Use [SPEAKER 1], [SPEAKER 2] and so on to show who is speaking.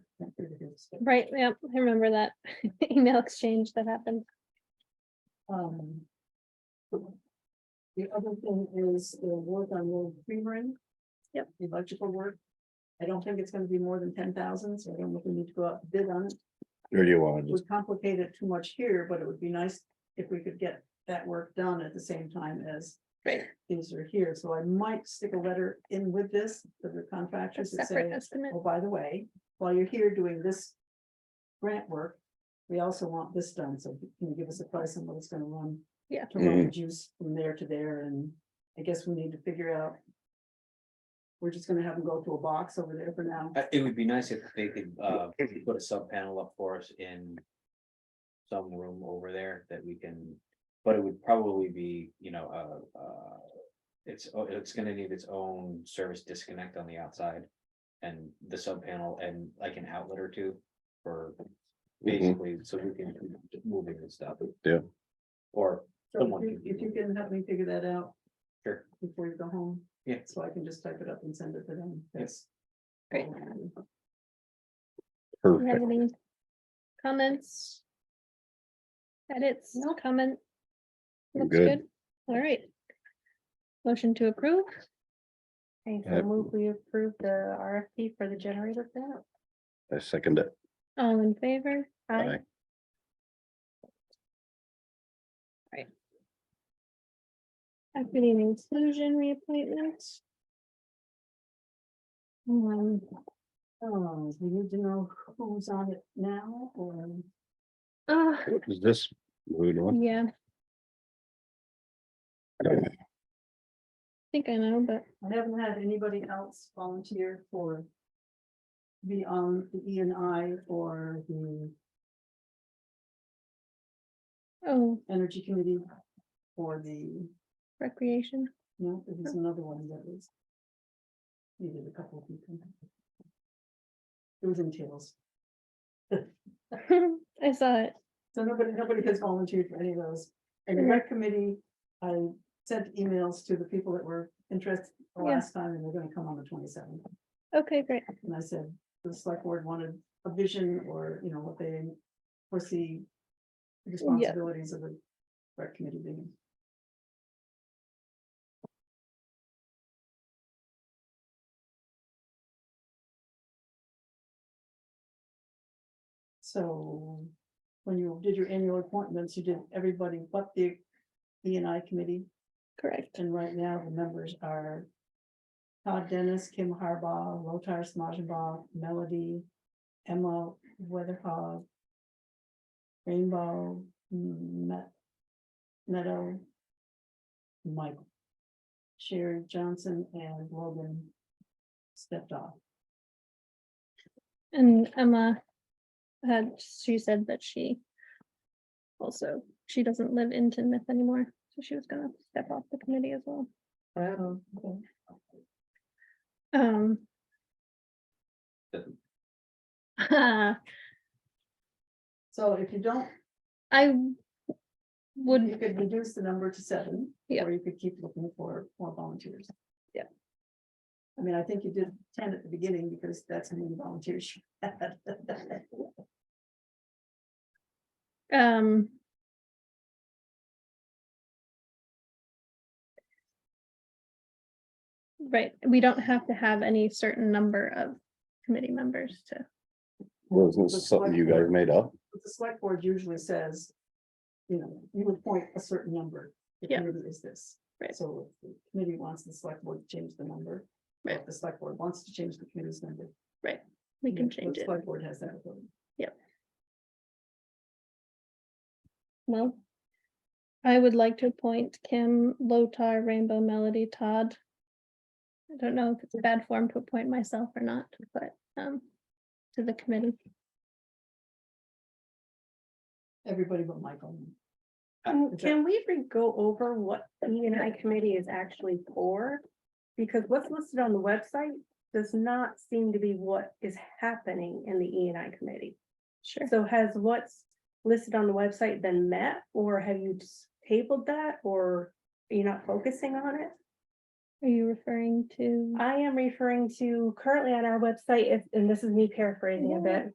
[SPEAKER 1] Right, yeah, I remember that email exchange that happened.
[SPEAKER 2] Um. The other thing is the work on World Freeman.
[SPEAKER 1] Yep.
[SPEAKER 2] the Electrical work. I don't think it's gonna be more than ten thousand, so I don't think we need to go out and bid on it.
[SPEAKER 3] Or do you want
[SPEAKER 2] It
[SPEAKER 3] to just,
[SPEAKER 2] would complicate it too much here, but it would be nice if we could get that work done at the same time as.
[SPEAKER 1] Right.
[SPEAKER 2] These are here, so I might stick a letter in with this to the contractors that
[SPEAKER 1] Separate
[SPEAKER 2] say,
[SPEAKER 1] estimate.
[SPEAKER 2] oh, by the way, while you're here doing this. Grant work, we also want this done, so can you give us a price on what it's gonna run?
[SPEAKER 1] Yeah.
[SPEAKER 2] To run the juice from there to there, and I guess we need to figure out. We're just gonna have them go to a box over there for now.
[SPEAKER 4] Uh, It would be nice if they could uh put a sub panel up for us in. Some room over there that we can, but it would probably be, you know, uh, uh. It's, oh, it's gonna need its own service disconnect on the outside. And the sub panel and like an outlet or two for
[SPEAKER 3] Mm-hmm.
[SPEAKER 4] basically, so we can keep moving and stuff.
[SPEAKER 3] Yeah.
[SPEAKER 4] Or
[SPEAKER 2] So
[SPEAKER 4] Someone
[SPEAKER 2] if you-
[SPEAKER 4] can-
[SPEAKER 2] if you can help me figure that out.
[SPEAKER 4] Sure.
[SPEAKER 2] Before you go home.
[SPEAKER 4] Yeah.
[SPEAKER 2] So I can just type it up and send it to them. Yes.
[SPEAKER 1] Great. You have
[SPEAKER 3] perfect,
[SPEAKER 1] any Comments? Edits, no comment?
[SPEAKER 3] I'm
[SPEAKER 1] Looks
[SPEAKER 3] good.
[SPEAKER 1] good. All right. Motion to approve?
[SPEAKER 5] Okay,
[SPEAKER 3] Yeah.
[SPEAKER 5] so move, we approve the RFP for the generator panel.
[SPEAKER 3] I second it.
[SPEAKER 1] All in favor?
[SPEAKER 3] Aye.
[SPEAKER 1] Equity and inclusion reappointment? Um,
[SPEAKER 2] Oh, we need to know who's on it now or.
[SPEAKER 1] uh,
[SPEAKER 3] Is this moving on?
[SPEAKER 1] yeah, I think I know, but
[SPEAKER 2] I haven't had anybody else volunteer for. The um, the E and I or the
[SPEAKER 1] oh,
[SPEAKER 2] Energy Committee. Or the,
[SPEAKER 1] recreation.
[SPEAKER 2] no, it was another one that was. Needed a couple of people. It was in tails.
[SPEAKER 1] I saw it.
[SPEAKER 2] So nobody, nobody has volunteered for any of those. And the rec committee, I sent emails to the people that were interested the
[SPEAKER 1] Yeah.
[SPEAKER 2] last time and they're gonna come on the twenty seventh.
[SPEAKER 1] Okay, great.
[SPEAKER 2] And I said, the select board wanted a vision or, you know, what they foresee. the Responsibilities of the rec committee being. So when you did your annual appointments, you did everybody but the E and I committee.
[SPEAKER 1] Correct.
[SPEAKER 2] And right now, the members are Todd Dennis, Kim Harbaugh, Lotar Smajenbaugh, Melody, Emma Weatherhog, Rainbow, Met, Meadow, Michael, Sherry Johnson, and Logan stepped off.
[SPEAKER 1] And Emma had, she said that she also, she doesn't live in Tinmouth anymore, so she was gonna step off the committee as well.
[SPEAKER 2] Oh, okay.
[SPEAKER 1] Um.
[SPEAKER 2] So if you don't,
[SPEAKER 1] I
[SPEAKER 2] you
[SPEAKER 1] would,
[SPEAKER 2] could reduce the number to seven.
[SPEAKER 1] Yeah.
[SPEAKER 2] Or you could keep looking for more volunteers.
[SPEAKER 1] Yeah.
[SPEAKER 2] I mean, I think you did ten at the beginning because that's how many volunteers. you had.
[SPEAKER 1] um. Right, we don't have to have any certain number of committee members to,
[SPEAKER 3] Wasn't this something you guys made up?
[SPEAKER 2] But The select board usually says, you know, you appoint a certain number. The
[SPEAKER 1] Yeah.
[SPEAKER 2] committee is this.
[SPEAKER 1] Right.
[SPEAKER 2] So if the committee wants the select board to change the number. or if
[SPEAKER 1] Right.
[SPEAKER 2] The select board wants to change the committee's number.
[SPEAKER 1] we can
[SPEAKER 2] the
[SPEAKER 1] change it.
[SPEAKER 2] Select board has that. authority.
[SPEAKER 1] No. I would like to appoint Kim, Lotar, Rainbow Melody, Todd. I don't know if it's bad form to appoint myself or not, but, um, to the committee.
[SPEAKER 2] Everybody but Michael.
[SPEAKER 5] Um, Can we re- go over what E and I committee is actually for? Because what's listed on the website does not seem to be what is happening in the E and I committee.
[SPEAKER 1] Sure.
[SPEAKER 5] So has what's listed on the website been met, or have you just tabled that, or are you not focusing on it?
[SPEAKER 1] Are you referring to?
[SPEAKER 5] I am referring to currently on our website, if- and this is me paraphrasing a
[SPEAKER 1] Yeah.
[SPEAKER 5] bit.